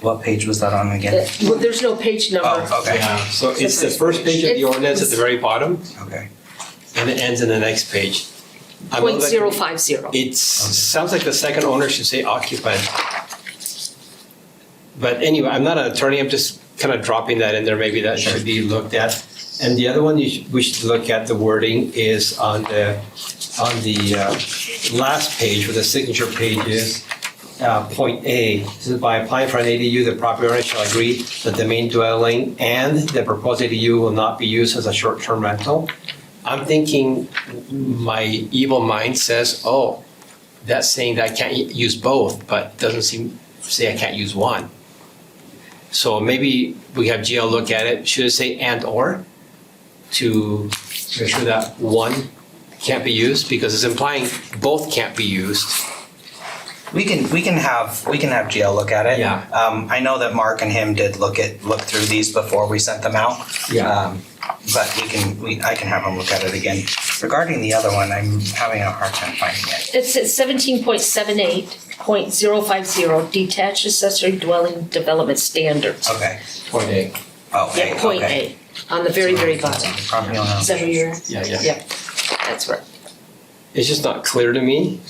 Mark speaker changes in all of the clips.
Speaker 1: What page was that on again?
Speaker 2: That- Well, there's no page number.
Speaker 1: Oh, okay,
Speaker 3: Yeah, so it's the first page of the
Speaker 2: It's-
Speaker 3: ordinance at the very bottom,
Speaker 1: okay.
Speaker 3: and it ends in the next page. I know
Speaker 2: Point
Speaker 3: that
Speaker 2: zero five zero.
Speaker 3: It sounds like the second owner should say occupant. But anyway, I'm not an attorney, I'm just kind of dropping that in there, maybe that should be looked at. And the other one you should, we should look at the wording is on the, on the uh, last page where the signature page is. Uh, point A, this is by applying for an ADU, the property owner shall agree that the main dwelling and the proposed ADU will not be used as a short-term rental. I'm thinking, my evil mind says, oh, that's saying that I can't u- use both, but doesn't seem, say I can't use one. So maybe we have GL look at it, should it say and or? To make sure that one can't be used, because it's implying both can't be used.
Speaker 1: We can, we can have, we can have GL look at it.
Speaker 3: Yeah.
Speaker 1: Um, I know that Mark and him did look at, look through these before we sent them out. Um, But we can, we, I can have him look at it again. Regarding the other one, I'm having a hard time finding it.
Speaker 2: It's at seventeen point seven eight point zero five zero detached accessory dwelling development standards.
Speaker 1: Okay,
Speaker 3: Point A.
Speaker 1: oh, A,
Speaker 2: Yeah, point
Speaker 1: okay.
Speaker 2: eight, on the very, very bottom.
Speaker 1: Property owner.
Speaker 2: Is that where you're?
Speaker 3: Yeah, yeah.
Speaker 2: Yeah, that's right.
Speaker 3: It's just not clear to me.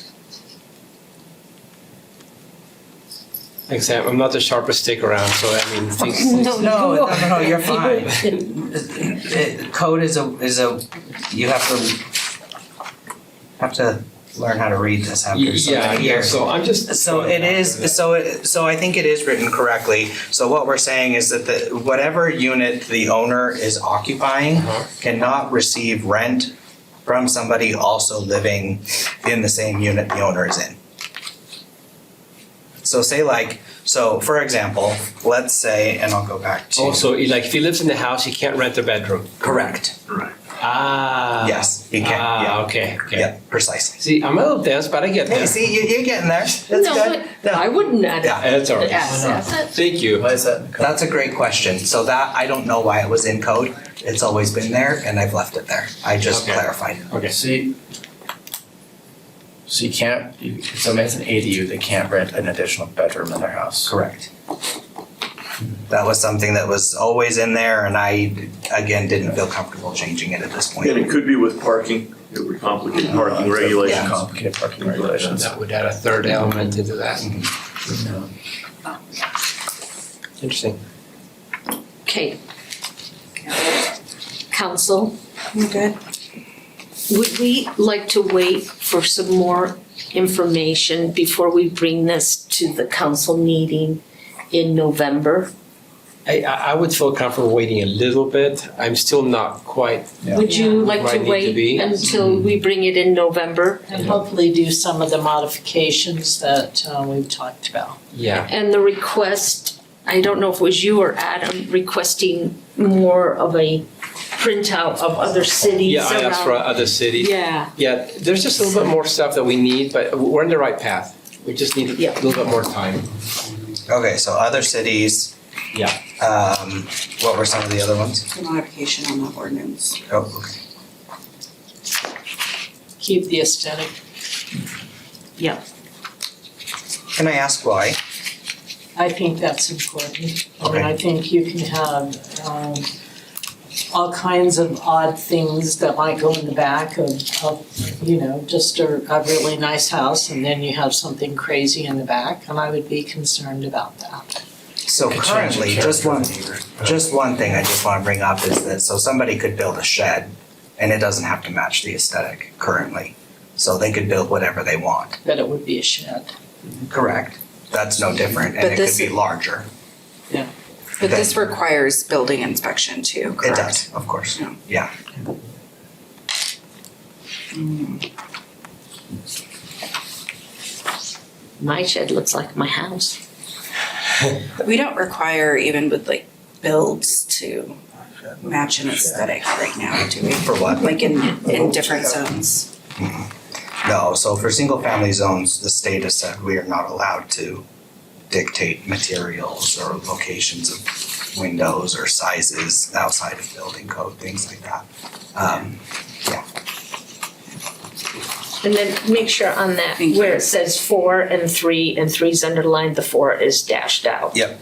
Speaker 3: Like I said, I'm not the sharpest stick around, so I mean, things,
Speaker 1: No, no, no, no, you're fine.
Speaker 2: fine.
Speaker 1: It- Uh, Code is a, is a, you have to, have to learn how to read this
Speaker 3: Y-
Speaker 1: after so
Speaker 3: yeah,
Speaker 1: many
Speaker 3: yeah,
Speaker 1: years.
Speaker 3: so I'm just.
Speaker 1: So it is, so it, so I think it is written correctly. So what we're saying is that the, whatever unit the owner is occupying
Speaker 3: Uh-huh.
Speaker 1: cannot receive rent from somebody also living in the same unit the owner is in. So say like, so for example, let's say, and I'll go back to.
Speaker 3: Also, like if he lives in the house, he can't rent the bedroom.
Speaker 1: Correct,
Speaker 3: Ah.
Speaker 1: yes, you can,
Speaker 3: Ah,
Speaker 1: yeah,
Speaker 3: okay, okay.
Speaker 1: yeah, precisely.
Speaker 3: See, I'm a little dense, but I get
Speaker 1: Hey,
Speaker 3: that.
Speaker 1: see, you, you're getting there, that's good.
Speaker 2: No,
Speaker 1: No.
Speaker 2: but I wouldn't add
Speaker 1: Yeah.
Speaker 3: That's all right.
Speaker 2: ask that.
Speaker 3: Thank you.
Speaker 4: Why is that?
Speaker 1: That's a great question. So that, I don't know why it was in code. It's always been there and I've left it there. I just
Speaker 3: Okay.
Speaker 1: clarified.
Speaker 3: Okay.
Speaker 4: See, so you can't, you- if somebody has an ADU, they can't rent an additional bedroom in their house.
Speaker 1: Correct. That was something that was always in there and I, again, didn't feel comfortable changing it at this
Speaker 5: And it
Speaker 1: point.
Speaker 5: could be with parking, it would complicate parking
Speaker 4: Yeah,
Speaker 5: regulations.
Speaker 4: Complicated parking regulations.
Speaker 3: That would add a third element into that.
Speaker 4: No.
Speaker 3: Interesting.
Speaker 2: Okay. Council,
Speaker 6: I'm good.
Speaker 2: would we like to wait for some more information before we bring this to the council meeting in November?
Speaker 3: I, I I would feel comfortable waiting a little bit. I'm still not quite,
Speaker 4: Yeah.
Speaker 2: Would you like
Speaker 3: Where I
Speaker 2: to
Speaker 3: need to be. Mm-hmm.
Speaker 2: wait until we bring it in November?
Speaker 7: And hopefully do some of the modifications that uh, we've talked about.
Speaker 3: yeah.
Speaker 2: And the request, I don't know if it was you or Adam requesting more of a printout of other cities
Speaker 3: Yeah,
Speaker 2: around.
Speaker 3: I asked for other cities.
Speaker 2: Yeah,
Speaker 3: Yeah, there's just a little bit more stuff that we need, but we're on the right path. We just need a
Speaker 2: Yeah.
Speaker 3: little bit more time.
Speaker 1: Okay, so other cities.
Speaker 3: Yeah.
Speaker 1: Um, what were some of the other ones?
Speaker 6: The modification on the ordinance.
Speaker 1: Oh, okay.
Speaker 7: Keep the aesthetic.
Speaker 2: yeah.
Speaker 1: Can I ask why?
Speaker 7: I think that's important. I mean,
Speaker 1: Okay.
Speaker 7: I think you can have um, all kinds of odd things that might go in the back of, of, you know, just a, a really nice house and then you have something crazy in the back. And I would be concerned about that.
Speaker 1: So
Speaker 4: Could change the
Speaker 1: currently, just
Speaker 4: character
Speaker 1: one,
Speaker 4: of the neighborhood.
Speaker 1: Just one thing I just want to bring up is that, so somebody could build a shed and it doesn't have to match the aesthetic currently. So they could build whatever they want,
Speaker 7: That it would be a shed.
Speaker 1: correct? That's no different
Speaker 6: But
Speaker 1: and it could
Speaker 6: this-
Speaker 1: be larger.
Speaker 6: But this requires building inspection too,
Speaker 1: It
Speaker 6: correct?
Speaker 1: does, of course,
Speaker 6: Yeah.
Speaker 1: yeah.
Speaker 2: My shed looks like my house.
Speaker 6: We don't require even with like builds to match an aesthetic right now, do we?
Speaker 1: For what?
Speaker 6: Like in, in different zones.
Speaker 1: No, so for single family zones, the state has said we are not allowed to dictate materials or locations of windows or sizes outside of building code, things like that. Um,
Speaker 2: And then make sure on that,
Speaker 6: Thank you.
Speaker 2: where it says four and three, and three's underlined, the four is dashed out.
Speaker 1: Yep.